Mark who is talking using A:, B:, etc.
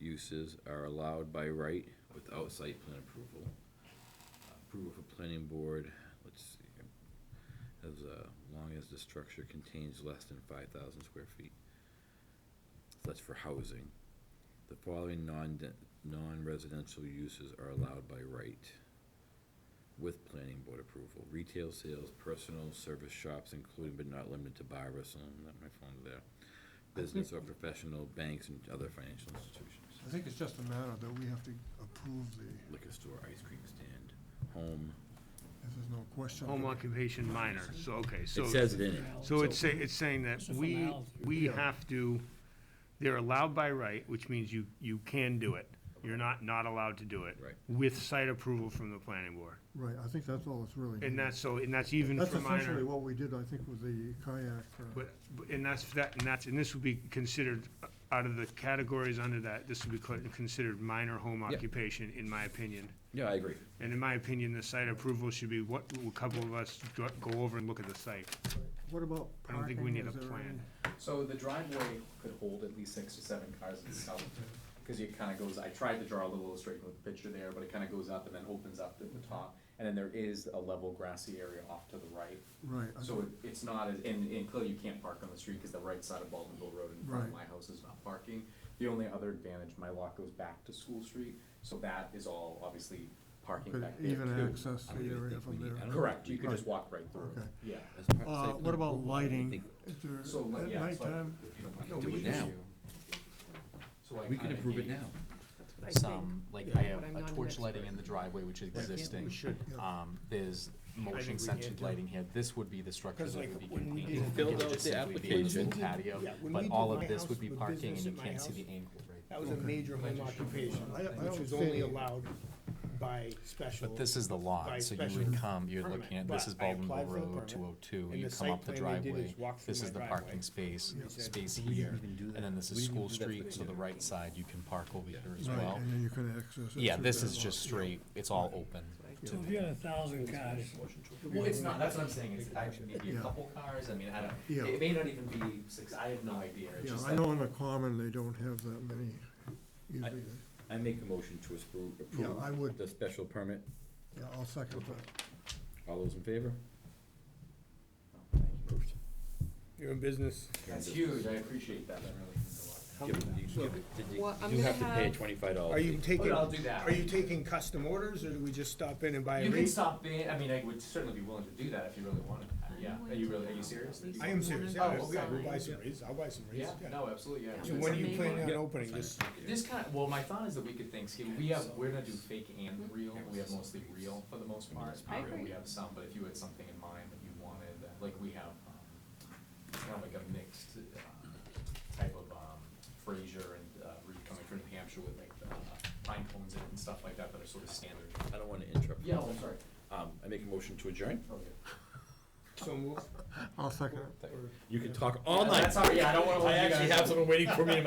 A: uses are allowed by right without site plan approval. Approval for planning board, let's see, here, as uh, long as the structure contains less than five thousand square feet. So That's for housing. The following non, non-residential uses are allowed by right with planning board approval. Retail sales, personal service shops, including but not limited to bar, restaurant, not my phone there. Business or professional, banks and other financial institutions.
B: I think it's just a matter that we have to approve the,
A: Liquor store, ice cream stand, home.
B: if there's no question.
C: Home occupation minor, so, okay, so.
A: It says it in it.
C: So it's saying, it's saying that
D: It's a
C: we,
D: formality.
C: we have to, they're allowed by right, which means you, you can do it. You're not, not allowed to do it.
A: Right.
C: With site approval from the planning board.
B: Right, I think that's all it's really.
C: And that's so, and that's even
B: That's
C: for
B: essentially
C: minor.
B: what we did, I think, with the kayak. uh,
C: But, but- and that's, that, and that's, and this would be considered, uh, out of the categories under that, this would be cl- considered minor home
A: Yeah.
C: occupation, in my opinion.
A: Yeah, I agree.
C: And in my opinion, the site approval should be what, a couple of us go go over and look at the site.
B: What about
C: I
B: parking?
C: don't think we need a
B: Is there
C: plan.
E: So the driveway could hold at least six to seven cars itself, because it kinda goes, I tried to draw a little illustration with the picture there, but it kinda goes up and then opens up at the top. And then there is a level grassy area off to the right,
B: any- Right, I
E: so it, it's not, as- and, and clearly you can't park on the street, cause the right side of Baldwinville Road in front of my
B: Right.
E: house is not parking. The only other advantage, my lot goes back to School Street, so that is all obviously parking
B: could
E: back there
B: even
E: too.
B: access
A: I
B: the
A: don't even
B: area
A: think we
B: from
A: need- I
B: there.
A: don't
E: Correct, you could just
B: Right.
E: walk right through,
B: Okay.
E: yeah.
A: As part of
B: Uh,
A: site
B: what
A: plan
B: about
A: approval, I
B: lighting?
A: think
B: Is there-
E: So, like,
B: At
E: yeah, it's like-
B: nighttime,
A: we can do it now.
E: So I
A: We can
E: kinda
A: approve it
E: gave-
A: now.
F: I think.
E: some, like I have
F: But I'm
E: a
F: not an
E: torch lighting in the driveway which is existing. Um, there's motion sensitive lighting here, this would be the structure that would be contained.
A: did- Filled out the application.
E: Patio,
D: Yeah, when
E: but
D: we
E: all
D: did
E: of
D: my
E: this
D: house
E: would be
D: with
E: parking and
D: business
E: you
D: at my
E: can't see the
D: house,
E: angle right
D: That was a major home occupation, which was only allowed by special.
E: But this is the
D: by
E: lot, so you
D: special
E: would come, you're
D: permit,
E: looking at,
D: but
E: this is
D: I applied
E: Baldwin
D: for the permit,
E: Road two oh two,
D: and
E: you
D: the
E: come
D: site
E: up the
D: plan they did
E: driveway,
D: is walk through
E: this
D: my
E: is the
D: driveway.
E: parking space, space
A: We didn't
E: here,
A: even do that.
E: and then this
A: We
E: is
A: didn't
E: School
A: even do that for
E: Street,
A: the
E: so the
A: other.
E: right side, you can park over here as
B: right,
E: well.
B: and then you can access. it
E: Yeah,
B: through
E: this
B: that
E: is
B: lot.
E: just straight, it's all open.
D: So if you had a thousand cars,
E: Well, it's not, that's what I'm saying, it's actually maybe
B: Yeah.
E: a couple cars, I mean, I
B: Yeah.
E: don't, it may not even be six, I have no idea, it's
B: Yeah,
E: just
B: I
E: that-
B: know in the common, they don't have that many. usually.
A: I make a motion to appro-
B: Yeah,
A: approve
B: I would,
A: the special permit.
B: yeah, I'll second that.
A: All those in favor? Approved.
D: you're in business.
E: That's huge, I appreciate that, that really means a lot.
A: Give it- you give it- did you-
F: Well, I'm
A: You have to
F: gonna
A: pay
F: have-
A: twenty-five dollars.
D: Are you taking,
E: But I'll do that.
D: are you taking custom orders, or do we just stop in and buy a
E: You can
D: rate?
E: stop in, I mean, I would certainly be willing to do that if you really wanted, to. yeah, are you really, are you serious? That you-
D: I am serious,
E: Oh,
D: yeah,
E: okay.
D: I'll buy some rates, I'll buy some rates,
E: Yeah,
D: yeah.
E: no, absolutely, yeah.
D: So when are you
F: Something
D: planning on
A: like-
D: opening this?
E: This kind of, well, my thought is the week of Thanksgiving, we have, we're gonna do fake and real, we have mostly real for the most part.
F: Mm-hmm. I
E: Real, We
F: agree.
E: have some, but if you had something in mind that you wanted, uh, like we have, um, kind of like a mixed, uh, type of, um, Fraser and, uh, Reed coming from New Hampshire with like the uh, pine cones in it and stuff like that that are sort of standard.
A: I don't wanna interrupt.
E: Yeah, oh, I'm sorry.
A: Um, I make a motion to adjourn.
E: Okay.
D: So move.
B: I'll second it.
A: You can talk all
E: Yeah,
A: night.
E: That's all, Oh, yeah, I don't wanna. hold
A: I
E: you
A: actually
E: guys
A: have
E: up.
A: someone waiting for me in my